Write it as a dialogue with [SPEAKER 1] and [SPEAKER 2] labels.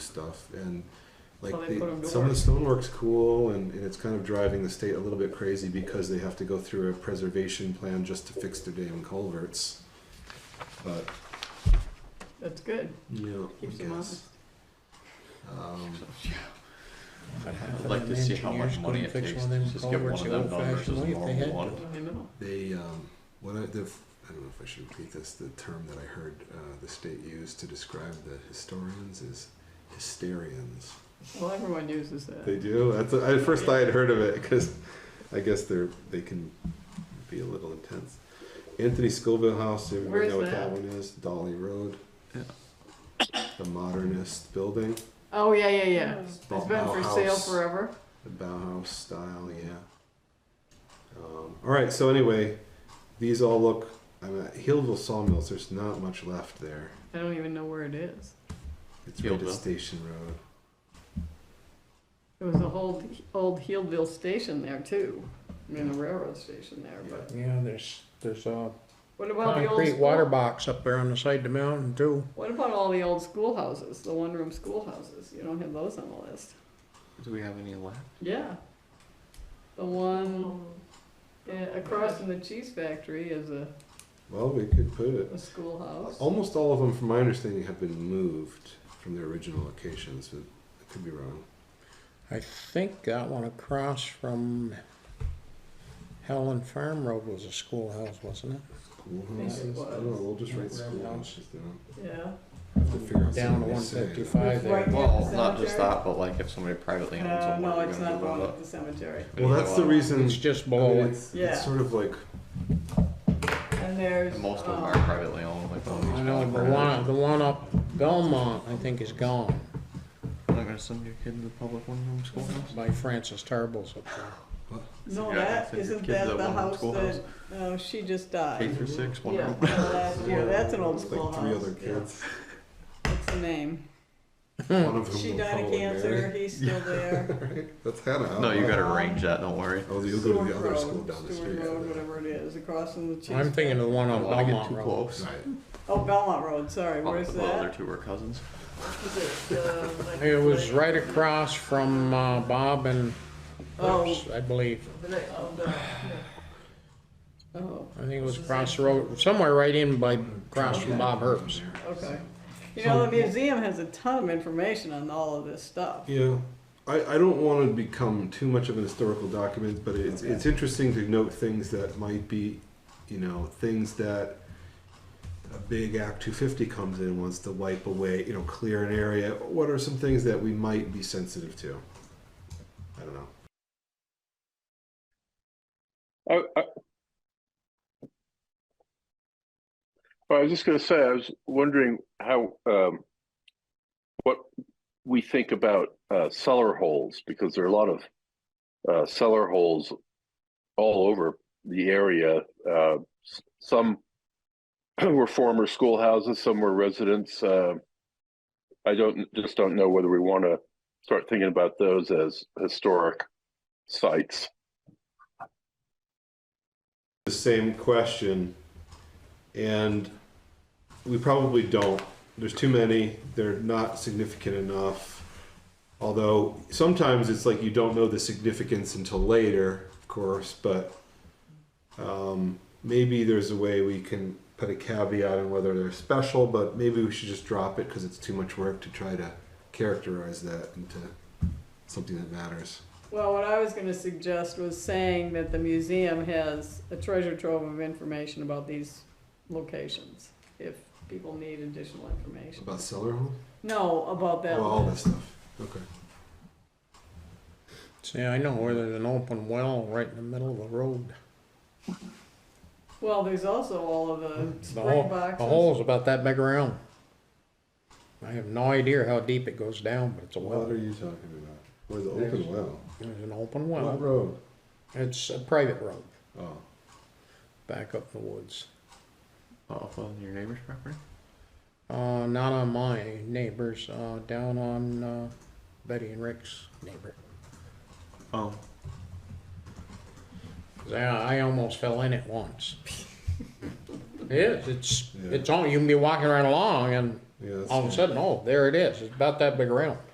[SPEAKER 1] stuff and like
[SPEAKER 2] Well, they
[SPEAKER 1] they-
[SPEAKER 2] put 'em to
[SPEAKER 1] some of
[SPEAKER 2] work.
[SPEAKER 1] the stonework's cool and, and it's kind of driving the state a little bit crazy because they have to go through a preservation plan just to fix their damn culverts. But
[SPEAKER 2] That's good.
[SPEAKER 1] you know, I
[SPEAKER 2] Keeps them
[SPEAKER 1] guess.
[SPEAKER 2] honest.
[SPEAKER 1] Um,
[SPEAKER 3] I'd like to see how much money it takes to just get one of them done versus a normal one.
[SPEAKER 2] I know.
[SPEAKER 1] They, um, what I, the, I don't know if I should repeat this, the term that I heard uh, the state use to describe the historians is hysterians.
[SPEAKER 2] Well, everyone uh, uses
[SPEAKER 1] They
[SPEAKER 2] that.
[SPEAKER 1] do? That's, at first I had heard of it because I guess they're, they can be a little intense. Anthony Scoville House,
[SPEAKER 2] Where
[SPEAKER 1] everyone
[SPEAKER 2] is
[SPEAKER 1] know what
[SPEAKER 2] that?
[SPEAKER 1] that one is? Dolly Road. The modernist building,
[SPEAKER 2] Oh, yeah, yeah, yeah.
[SPEAKER 4] Yeah.
[SPEAKER 2] It's been for sale
[SPEAKER 1] Bauhaus.
[SPEAKER 2] forever.
[SPEAKER 1] the Bauhaus style, yeah. Um, all right, so anyway, these all look, I mean, Hillville Sawmills, there's not much left there.
[SPEAKER 2] I don't even know where it is.
[SPEAKER 1] It's right
[SPEAKER 3] Hillville.
[SPEAKER 1] at Station Road.
[SPEAKER 2] It was a whole old Healdville station there too. I mean, the railroad station there. But
[SPEAKER 4] Yeah, there's, there's a
[SPEAKER 2] what about the old
[SPEAKER 4] concrete
[SPEAKER 2] school-
[SPEAKER 4] water box up there on the side of the mountain too.
[SPEAKER 2] What about all the old schoolhouses, the one-room schoolhouses? You don't have those on the list.
[SPEAKER 3] Do we have any left?
[SPEAKER 2] Yeah. The one uh, across from the cheese factory is a,
[SPEAKER 1] Well, we could put it.
[SPEAKER 2] a schoolhouse.
[SPEAKER 1] Almost all of them, from my understanding, have been moved from their original locations, but I could be wrong.
[SPEAKER 4] I think that one across from Helen Farm Road was a schoolhouse, wasn't it?
[SPEAKER 1] Schoolhouses? I don't know, we'll just write schoolhouses down.
[SPEAKER 2] Yeah.
[SPEAKER 1] Have to figure out
[SPEAKER 4] Down
[SPEAKER 1] something
[SPEAKER 4] to one
[SPEAKER 1] to say.
[SPEAKER 4] fifty-five there.
[SPEAKER 2] Right.
[SPEAKER 3] Well,
[SPEAKER 2] the
[SPEAKER 3] not just
[SPEAKER 2] cemetery?
[SPEAKER 3] that, but like if somebody privately owns
[SPEAKER 2] No,
[SPEAKER 3] them,
[SPEAKER 2] Uh, no,
[SPEAKER 3] what are we
[SPEAKER 2] it's
[SPEAKER 3] gonna
[SPEAKER 2] not
[SPEAKER 3] do
[SPEAKER 2] going
[SPEAKER 3] about
[SPEAKER 2] at the cemetery.
[SPEAKER 3] it?
[SPEAKER 1] Well, that's the reason,
[SPEAKER 4] It's just
[SPEAKER 1] I mean,
[SPEAKER 4] below it.
[SPEAKER 1] it's,
[SPEAKER 2] Yeah.
[SPEAKER 1] it's sort of like,
[SPEAKER 2] And there's.
[SPEAKER 3] And most of them
[SPEAKER 2] um,
[SPEAKER 3] are privately owned, like all these.
[SPEAKER 4] I know, the
[SPEAKER 3] private-
[SPEAKER 4] one, the one up Belmont, I think is gone
[SPEAKER 3] You're Not gonna send your kid to the public one-room schoolhouse?
[SPEAKER 4] by Francis Tarbell's up there.
[SPEAKER 2] No,
[SPEAKER 3] Yeah,
[SPEAKER 2] that,
[SPEAKER 3] that's it.
[SPEAKER 2] isn't
[SPEAKER 3] Kids
[SPEAKER 2] that
[SPEAKER 3] that
[SPEAKER 2] the
[SPEAKER 3] want
[SPEAKER 2] house
[SPEAKER 3] schoolhouse.
[SPEAKER 2] that, no, she just
[SPEAKER 3] K
[SPEAKER 2] died.
[SPEAKER 3] through six, one
[SPEAKER 2] Yeah,
[SPEAKER 3] room.
[SPEAKER 2] last year, that's an old
[SPEAKER 1] it's like
[SPEAKER 2] schoolhouse.
[SPEAKER 1] three other
[SPEAKER 2] yeah.
[SPEAKER 1] kids.
[SPEAKER 2] What's the name?
[SPEAKER 1] One of
[SPEAKER 2] She
[SPEAKER 1] whom will
[SPEAKER 2] died of
[SPEAKER 1] probably
[SPEAKER 2] cancer,
[SPEAKER 1] marry.
[SPEAKER 2] he's still there.
[SPEAKER 1] That's Hannah.
[SPEAKER 3] No, you
[SPEAKER 1] huh?
[SPEAKER 3] gotta arrange that, don't worry.
[SPEAKER 1] Oh, you'll go to the
[SPEAKER 2] Stewart
[SPEAKER 1] other
[SPEAKER 2] Road,
[SPEAKER 1] school down the
[SPEAKER 2] Stewart
[SPEAKER 1] street.
[SPEAKER 2] Road,
[SPEAKER 1] yeah.
[SPEAKER 2] whatever it is, across from the cheese.
[SPEAKER 4] I'm thinking of the one
[SPEAKER 3] I
[SPEAKER 4] on
[SPEAKER 3] don't wanna get
[SPEAKER 4] Oh, Belmont
[SPEAKER 3] too
[SPEAKER 4] Road.
[SPEAKER 3] close.
[SPEAKER 1] Right.
[SPEAKER 2] Oh, Belmont Road, sorry,
[SPEAKER 3] Oh,
[SPEAKER 2] where's
[SPEAKER 3] Well, the other
[SPEAKER 2] that?
[SPEAKER 3] two were cousins.
[SPEAKER 2] Is it, uh, like-
[SPEAKER 4] It was right across from, uh, Bob and
[SPEAKER 2] Oh.
[SPEAKER 4] Lips, I believe.
[SPEAKER 2] the night- oh, no, yeah. Oh,
[SPEAKER 4] I think it was across the road, somewhere right in by, across from Bob Herb's.
[SPEAKER 2] okay. You know, the museum has a ton of information on all of this stuff.
[SPEAKER 1] Yeah, I, I don't want to become too much of an historical document, but it's, it's interesting to note things that might be, you know, things that a big Act 250 comes in, wants to wipe away, you know, clear an area. What are some things that we might be sensitive to? I don't know.
[SPEAKER 5] I, I, well, I was just going to say, I was wondering how, um, what we think about uh, cellar holes, because there are a lot of uh, cellar holes all over the area. Uh, s- some were former schoolhouses, some were residents. Uh, I don't just don't know whether we want to start thinking about those as historic sites.
[SPEAKER 1] the same question, and we probably don't. There's too many. They're not significant enough. Although sometimes it's like you don't know the significance until later, of course. But um, maybe there's a way we can put a caveat on whether they're special. But maybe we should just drop it because it's too much work to try to characterize that into something that matters.
[SPEAKER 2] Well, what I was gonna suggest was saying that the museum has a treasure trove of information about these locations, if people need additional information.
[SPEAKER 1] About cellar home?
[SPEAKER 2] No, about that
[SPEAKER 1] Oh, all
[SPEAKER 2] one.
[SPEAKER 1] that stuff. Okay.
[SPEAKER 4] See, I know where there's an open well right in the middle of the road.
[SPEAKER 2] Well, there's also all of the
[SPEAKER 4] The
[SPEAKER 2] spring
[SPEAKER 4] hole, the
[SPEAKER 2] boxes.
[SPEAKER 4] hole's about that big around. I have no idea how deep it goes down, but it's a well.
[SPEAKER 1] What are you talking about? Where's the open well?
[SPEAKER 4] There's an open
[SPEAKER 1] What
[SPEAKER 4] well.
[SPEAKER 1] road?
[SPEAKER 4] It's a private road
[SPEAKER 1] Oh,
[SPEAKER 4] back up in the woods.
[SPEAKER 3] Off on your neighbor's property?
[SPEAKER 4] Uh, not on my neighbors, uh, down on, uh, Betty and Rick's neighbor.
[SPEAKER 3] Oh,
[SPEAKER 4] 'Cause I, I almost fell in it once. It is, it's,
[SPEAKER 1] Yeah.
[SPEAKER 4] it's all, you can be walking right along and
[SPEAKER 1] Yeah, that's-
[SPEAKER 4] All of a sudden, oh, there it is. It's about that big around.